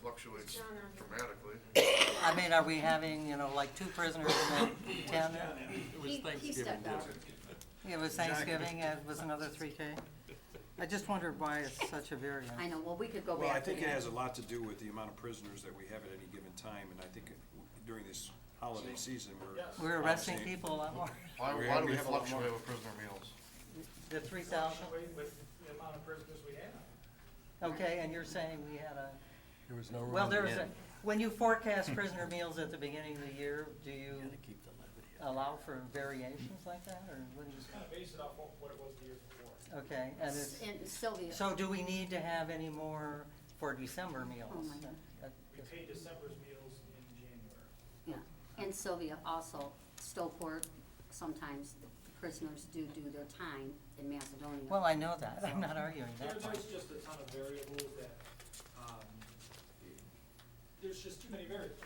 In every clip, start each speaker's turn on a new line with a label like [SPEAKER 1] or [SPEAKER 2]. [SPEAKER 1] fluctuates dramatically.
[SPEAKER 2] I mean, are we having, you know, like two prisoners and then ten?
[SPEAKER 3] It
[SPEAKER 4] He-
[SPEAKER 3] was
[SPEAKER 4] he
[SPEAKER 3] Thanksgiving
[SPEAKER 4] stepped out.
[SPEAKER 3] dinner.
[SPEAKER 2] It was Thanksgiving, and it was another three K. I just wondered why it's such a variance.
[SPEAKER 4] I know, well, we could go back.
[SPEAKER 5] Well, I
[SPEAKER 4] to
[SPEAKER 5] think it
[SPEAKER 4] that.
[SPEAKER 5] has a lot to do with the amount of prisoners that we have at any given time, and I think during this holiday season, we're.
[SPEAKER 2] We're arresting
[SPEAKER 5] obviously-
[SPEAKER 2] people a lot more.
[SPEAKER 1] Why,
[SPEAKER 5] We
[SPEAKER 1] why
[SPEAKER 5] have-
[SPEAKER 1] do
[SPEAKER 5] we
[SPEAKER 1] we
[SPEAKER 5] have a lot
[SPEAKER 1] fluctuate
[SPEAKER 5] more.
[SPEAKER 1] with prisoner meals?
[SPEAKER 2] The three thousand,
[SPEAKER 6] With, with the amount of prisoners we have.
[SPEAKER 2] okay, and you're saying we had a,
[SPEAKER 7] There was no room
[SPEAKER 2] well,
[SPEAKER 7] at the
[SPEAKER 2] there was a,
[SPEAKER 7] end.
[SPEAKER 2] when you forecast prisoner meals at the beginning of the year, do you allow for variations like that, or what do
[SPEAKER 6] Just kind of based it off what, what it was the year before.
[SPEAKER 2] you, okay, and it's,
[SPEAKER 4] And Sylvia,
[SPEAKER 2] so do we need to have any more for December meals?
[SPEAKER 4] Oh, my God.
[SPEAKER 2] That-
[SPEAKER 6] We paid December's meals in January.
[SPEAKER 4] yeah, and Sylvia also, Stowport, sometimes the prisoners do do their time in Macedonia.
[SPEAKER 2] Well, I know that, I'm not arguing
[SPEAKER 6] There,
[SPEAKER 2] that point.
[SPEAKER 6] there's just a ton of variables that, um, there's just too many variables.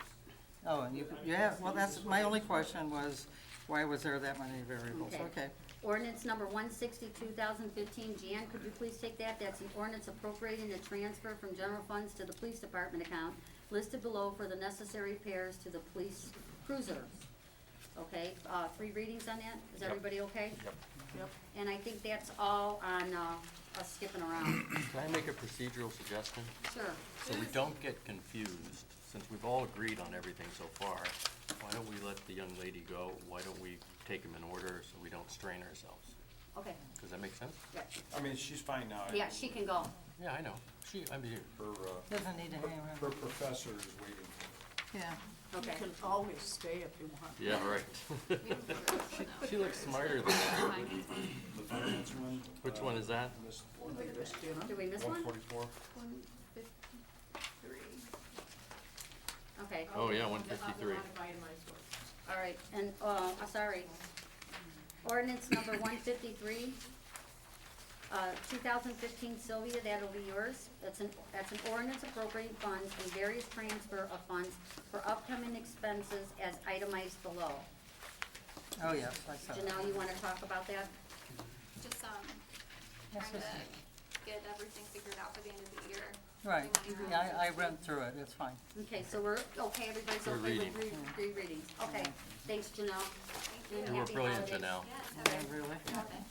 [SPEAKER 2] Oh, and you, you have, well, that's, my only question was, why was there that many variables?
[SPEAKER 4] Okay.
[SPEAKER 2] Okay,
[SPEAKER 4] Ordinance number one sixty, two thousand fifteen, Jan, could you please take that? That's an ordinance appropriating the transfer from general funds to the police department account listed below for the necessary repairs to the police cruiser. Okay, uh, three readings on that? Is everybody okay? Yep. Yep, and I think that's all on, uh, us skipping around.
[SPEAKER 7] Can I make a procedural suggestion?
[SPEAKER 4] Sure,
[SPEAKER 7] So we don't get confused, since we've all agreed on everything so far, why don't we let the young lady go? Why don't we take them in order so we don't strain ourselves?
[SPEAKER 4] okay,
[SPEAKER 7] Does that make sense?
[SPEAKER 4] yeah,
[SPEAKER 5] I mean, she's fine now.
[SPEAKER 4] yeah, she can go.
[SPEAKER 7] Yeah, I know. She, I'm here.
[SPEAKER 5] Her, uh,
[SPEAKER 2] doesn't need to hang
[SPEAKER 5] her
[SPEAKER 2] around.
[SPEAKER 5] professor is waiting for
[SPEAKER 2] Yeah,
[SPEAKER 4] Okay.
[SPEAKER 8] You can always stay if you want.
[SPEAKER 7] Yeah, right. She looks smarter than that.
[SPEAKER 5] her. The finance one. Uh,
[SPEAKER 7] Which one is that?
[SPEAKER 5] Miss-
[SPEAKER 4] Did we miss one?
[SPEAKER 1] One forty-four?
[SPEAKER 4] Okay,
[SPEAKER 7] Oh, yeah, one fifty-three.
[SPEAKER 4] all right, and, uh, I'm sorry. Ordinance number one fifty-three, uh, two thousand fifteen Sylvia, that'll be yours. That's an, that's an ordinance appropriating funds and various transfer of funds for upcoming expenses as itemized below.
[SPEAKER 2] oh, yes, I saw that.
[SPEAKER 4] Janelle, you wanna talk about that?
[SPEAKER 9] Just, um,
[SPEAKER 2] Yes,
[SPEAKER 9] trying to
[SPEAKER 2] yes.
[SPEAKER 9] get everything figured out for the end of the year.
[SPEAKER 2] Right,
[SPEAKER 9] Doing
[SPEAKER 2] yeah,
[SPEAKER 9] that.
[SPEAKER 2] I, I read through it, it's fine.
[SPEAKER 4] Okay, so we're, okay, everybody's okay with
[SPEAKER 7] reading.
[SPEAKER 4] three, three readings? Okay, thanks, Janelle.
[SPEAKER 9] you.
[SPEAKER 4] And
[SPEAKER 7] You were
[SPEAKER 4] happy
[SPEAKER 7] brilliant,
[SPEAKER 4] holidays.
[SPEAKER 7] Janelle.
[SPEAKER 9] Yes,
[SPEAKER 2] Yeah,
[SPEAKER 9] okay.
[SPEAKER 2] Really?
[SPEAKER 9] Love it.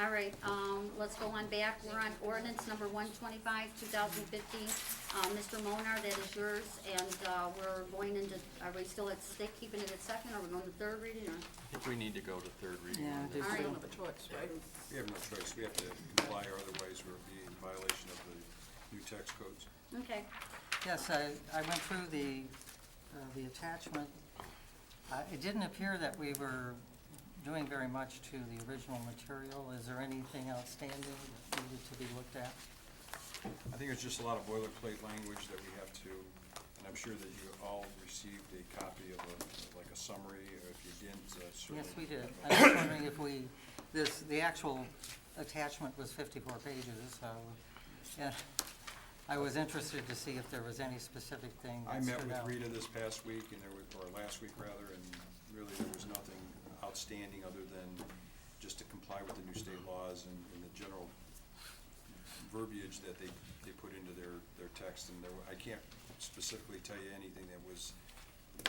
[SPEAKER 4] All right, um, let's go on back. We're on ordinance number one twenty-five, two thousand fifteen. Uh, Mr. Monar, that is yours, and, uh, we're going into, are we still at stick, keeping it at second, or we going to third reading, or?
[SPEAKER 7] I think we need to go to third reading.
[SPEAKER 2] Yeah,
[SPEAKER 7] on
[SPEAKER 2] I
[SPEAKER 7] this.
[SPEAKER 2] do
[SPEAKER 4] All
[SPEAKER 2] too.
[SPEAKER 4] right,
[SPEAKER 8] Don't have a choice, right?
[SPEAKER 5] We have no choice. We have to comply, or otherwise we'll be in violation of the new tax codes.
[SPEAKER 4] okay.
[SPEAKER 2] Yes, I, I went through the, uh, the attachment. Uh, It didn't appear that we were doing very much to the original material. Is there anything outstanding that needed to be looked at?
[SPEAKER 5] I think it's just a lot of boilerplate language that we have to, and I'm sure that you all received a copy of a, like a summary, or if you didn't, uh, certainly.
[SPEAKER 2] Yes, we did. I was wondering if we, this, the actual attachment was fifty-four pages, so, yeah. I was interested to see if there was any specific thing
[SPEAKER 5] I
[SPEAKER 2] that
[SPEAKER 5] met
[SPEAKER 2] stood
[SPEAKER 5] with
[SPEAKER 2] out.
[SPEAKER 5] Rita this past week, and there was, or last week rather, and really there was nothing outstanding other than just to comply with the new state laws and, and the general verbiage that they, they put into their, their text, and there, were- I can't specifically tell you anything that was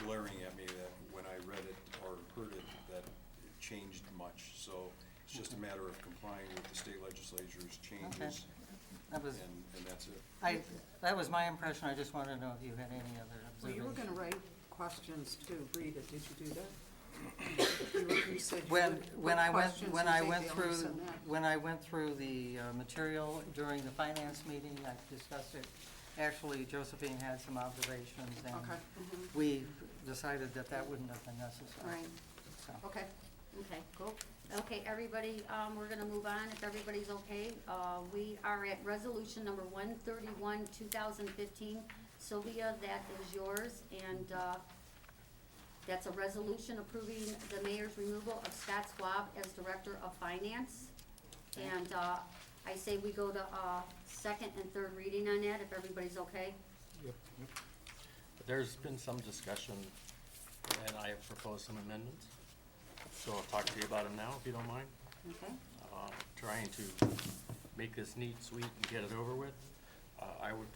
[SPEAKER 5] glaring at me that when I read it or heard it, that it changed much, so it's just a matter of complying with the state legislature's changes,
[SPEAKER 2] That
[SPEAKER 5] and,
[SPEAKER 2] was,
[SPEAKER 5] and that's it.
[SPEAKER 2] I, that was my impression. I just wanted to know if you had any other
[SPEAKER 8] Well, you were
[SPEAKER 2] observations.
[SPEAKER 8] gonna write questions to Rita, did you do that? You were- you said you
[SPEAKER 2] When,
[SPEAKER 8] would
[SPEAKER 2] when
[SPEAKER 8] put
[SPEAKER 2] I went,
[SPEAKER 8] questions,
[SPEAKER 2] when
[SPEAKER 8] you
[SPEAKER 2] I
[SPEAKER 8] think
[SPEAKER 2] went
[SPEAKER 8] they only
[SPEAKER 2] through,
[SPEAKER 8] send that.
[SPEAKER 2] when I went through the uh, material during the finance meeting, I discussed it. Actually, Josephine had some observations and
[SPEAKER 8] Okay,
[SPEAKER 2] we decided that that wouldn't have been necessary.
[SPEAKER 4] Right.
[SPEAKER 2] So,
[SPEAKER 8] okay.
[SPEAKER 4] Okay, cool. Okay, everybody, um, we're gonna move on, if everybody's okay. Uh, we are at resolution number one thirty-one, two thousand fifteen. Sylvia, that is yours, and, uh, that's a resolution approving the mayor's removal of Scott Swab as director of finance. And, uh, I say we go to, uh, second and third reading on that, if everybody's okay.
[SPEAKER 7] There's been some discussion, and I have proposed some amendments, so I'll talk to you about them now, if you don't mind.
[SPEAKER 4] Okay.
[SPEAKER 7] Uh, Trying to make this neat, sweet, and get it over with. Uh, I would